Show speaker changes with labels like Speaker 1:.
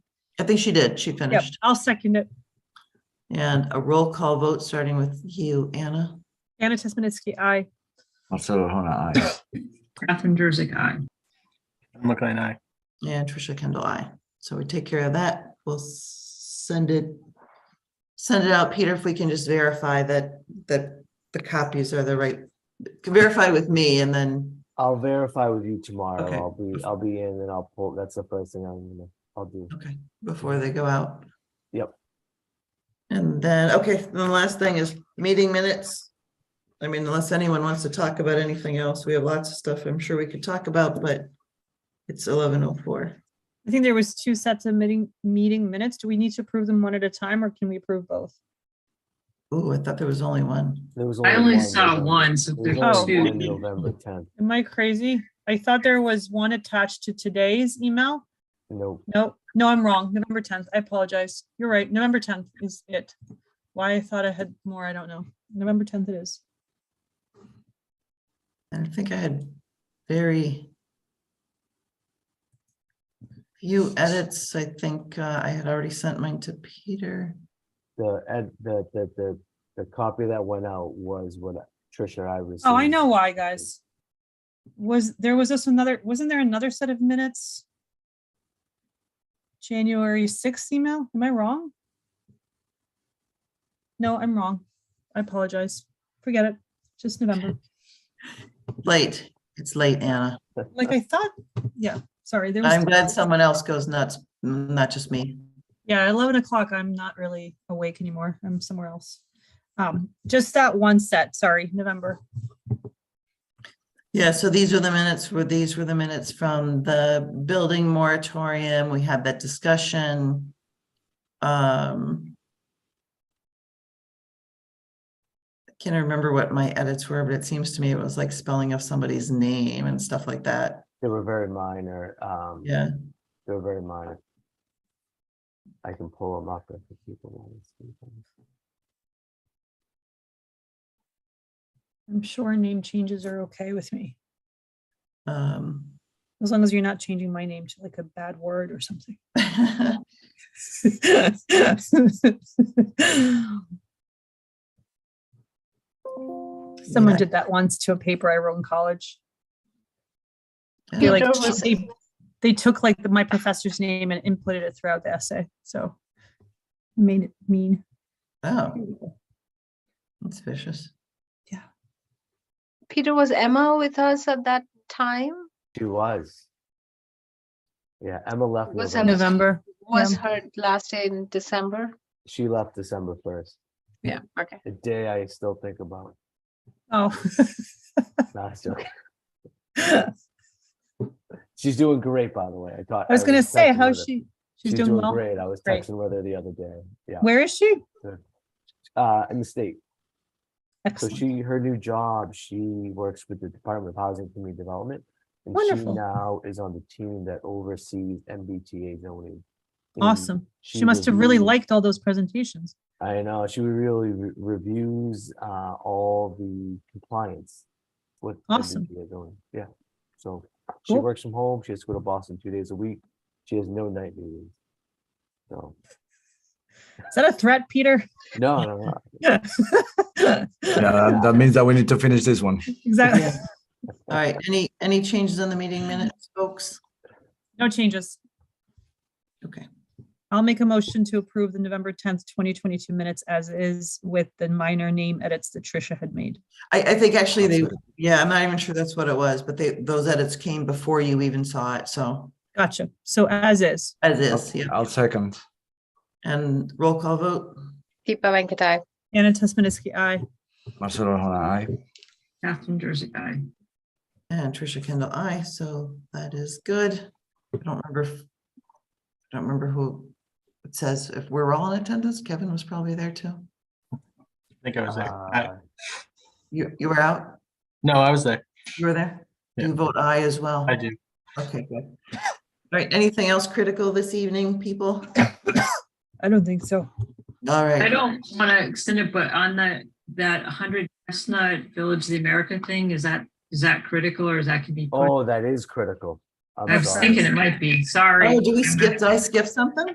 Speaker 1: think she did. She
Speaker 2: Yep,
Speaker 1: finished.
Speaker 2: I'll second it.
Speaker 1: And a roll call vote, starting with you, Anna.
Speaker 2: Anna Tesmanitsky, aye.
Speaker 3: Also, hold on. I,
Speaker 4: Catherine Jersey, aye.
Speaker 5: I'm looking at I.
Speaker 1: And Tricia Kendall, I. So we take care of that. We'll send it, send it out, Peter, if we can just verify that, that the copies are the right, verify with me and then,
Speaker 6: I'll verify with you tomorrow.
Speaker 1: Okay.
Speaker 6: I'll be, I'll be in and I'll pull, that's the first thing I'm gonna, I'll do.
Speaker 1: okay, before they go out.
Speaker 6: Yep.
Speaker 1: And then, okay, then the last thing is meeting minutes. I mean, unless anyone wants to talk about anything else, we have lots of stuff I'm sure we could talk about, but it's eleven oh four.
Speaker 2: I think there was two sets of meeting, meeting minutes. Do we need to approve them one at a time or can we approve both?
Speaker 1: Ooh, I thought there was only one.
Speaker 6: There was
Speaker 4: I only
Speaker 6: one
Speaker 4: saw
Speaker 6: November-
Speaker 4: one, so
Speaker 6: there
Speaker 4: there's
Speaker 6: was
Speaker 2: Oh.
Speaker 6: only one
Speaker 4: two.
Speaker 6: November tenth,
Speaker 2: Am I crazy? I thought there was one attached to today's email.
Speaker 6: no,
Speaker 2: No, no, I'm wrong. November 10th. I apologize. You're right. November 10th is it. Why I thought I had more, I don't know. November 10th it is.
Speaker 1: And I think I had very few edits. I think uh, I had already sent mine to Peter.
Speaker 6: the, ed- the, the, the, the copy that went out was what Trisha I received.
Speaker 2: Oh, I know why, guys. Was, there was this another, wasn't there another set of minutes? January sixth email? Am I wrong? No, I'm wrong. I apologize. Forget it. Just November.
Speaker 1: Late, it's late, Anna.
Speaker 2: Like I thought, yeah, sorry, there
Speaker 1: I'm
Speaker 2: was,
Speaker 1: glad someone else goes nuts, n- not just me.
Speaker 2: yeah, eleven o'clock. I'm not really awake anymore. I'm somewhere else. Um, just that one set, sorry, November.
Speaker 1: Yeah, so these were the minutes, were these were the minutes from the building moratorium. We had that discussion. Um. I Can't remember what my edits were, but it seems to me it was like spelling of somebody's name and stuff like that.
Speaker 6: They were very minor, um,
Speaker 1: Yeah,
Speaker 6: they were very minor. I can pull them up if people want to see them.
Speaker 2: I'm sure name changes are okay with me,
Speaker 1: um.
Speaker 2: as long as you're not changing my name to like a bad word or something. Someone
Speaker 1: Yeah.
Speaker 2: did that once to a paper I wrote in college. They
Speaker 1: Yeah,
Speaker 2: like, they, they took like the- my professor's name and inputted it throughout the essay, so. Made it mean.
Speaker 1: Oh. That's vicious.
Speaker 7: Peter, was Emma with us at that time?
Speaker 6: She was. Yeah, Emma left,
Speaker 7: Was
Speaker 6: November-
Speaker 7: November. Was
Speaker 2: Yeah.
Speaker 7: her last day in December?
Speaker 6: she left December first,
Speaker 4: Yeah, okay.
Speaker 6: the day I still think about,
Speaker 2: Oh.
Speaker 6: not joking.
Speaker 2: I
Speaker 6: She's doing great, by the way. I thought.
Speaker 2: was gonna say,
Speaker 6: texting
Speaker 2: how
Speaker 6: with her.
Speaker 2: she, she's doing well.
Speaker 6: great. I was
Speaker 2: Great.
Speaker 6: texting with her the other day. Yeah.
Speaker 2: Where is she?
Speaker 6: Uh, in the state. So
Speaker 2: Excellent.
Speaker 6: she, her new job, she works with the Department of Housing and Community Development. And she
Speaker 2: Wonderful.
Speaker 6: now is on the team that oversees MBTA zoning. and
Speaker 2: Awesome. She
Speaker 6: she
Speaker 2: must have really
Speaker 6: reviews-
Speaker 2: liked all those presentations.
Speaker 6: I know, she really re- reviews, uh, all the compliance with
Speaker 2: Awesome.
Speaker 6: MBTA zoning. Yeah. So she
Speaker 2: Cool.
Speaker 6: works from home. She has to go to Boston two days a week. She has no night meetings. So,
Speaker 2: Is that a threat, Peter?
Speaker 6: no, no, no.
Speaker 3: yeah, that, that means that we need to finish this one.
Speaker 2: Exactly.
Speaker 1: Yeah. All right, any, any changes on the meeting minutes, folks?
Speaker 2: No changes.
Speaker 1: Okay,
Speaker 2: I'll make a motion to approve the November tenth, twenty twenty-two minutes as is with the minor name edits that Tricia had made.
Speaker 1: I, I think actually they,
Speaker 3: Absolutely.
Speaker 1: yeah, I'm not even sure that's what it was, but they, those edits came before you even saw it, so
Speaker 2: Gotcha. So as is,
Speaker 1: as is, yeah.
Speaker 3: I'll second.
Speaker 1: And roll call vote,
Speaker 7: Deepa Venkatai.
Speaker 2: Anna Tesmeniski, aye.
Speaker 3: Marcelo, hold on. I.
Speaker 4: Catherine Jersey, aye.
Speaker 1: and Trisha Kendall, I. so that is good. I don't remember, if- I don't remember who it says, if we're all in attendance, Kevin was probably there too.
Speaker 5: I think I was there. I-
Speaker 6: Uh,
Speaker 1: You, you were out,
Speaker 5: No, I was there.
Speaker 1: you were there?
Speaker 5: Yeah.
Speaker 1: You vote aye as well?
Speaker 5: I do.
Speaker 1: Okay, good. All right, anything else critical this evening, people?
Speaker 2: I don't think so.
Speaker 1: All right.
Speaker 4: I don't want to extend it, but on that, that hundred Chestnut Village of the America thing, is that, is that critical or is that can be? put-
Speaker 6: Oh, that is critical. I'm
Speaker 4: I was
Speaker 6: sorry.
Speaker 4: thinking it might be, sorry.
Speaker 1: Oh, do we Oh, skip, did I skip something?